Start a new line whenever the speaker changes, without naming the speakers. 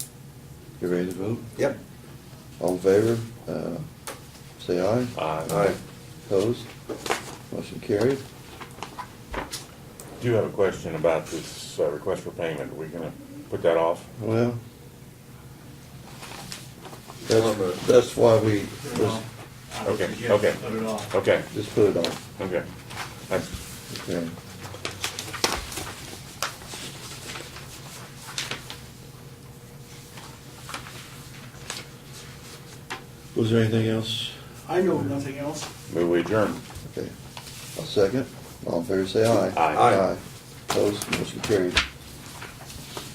You ready to vote?
Yep.
All in favor, uh, say aye.
Aye.
Aye.
Opposed? Motion carried.
Do you have a question about this uh, request for payment? Are we gonna put that off?
Well, that's, that's why we just,
Okay, okay.
Put it off.
Okay,
just put it off.
okay. That's-
Okay. Was there anything else?
I know nothing else.
Move we adjourn.
Okay. I'll second. All in favor, say aye.
Aye.
Aye.
Opposed? Motion carried.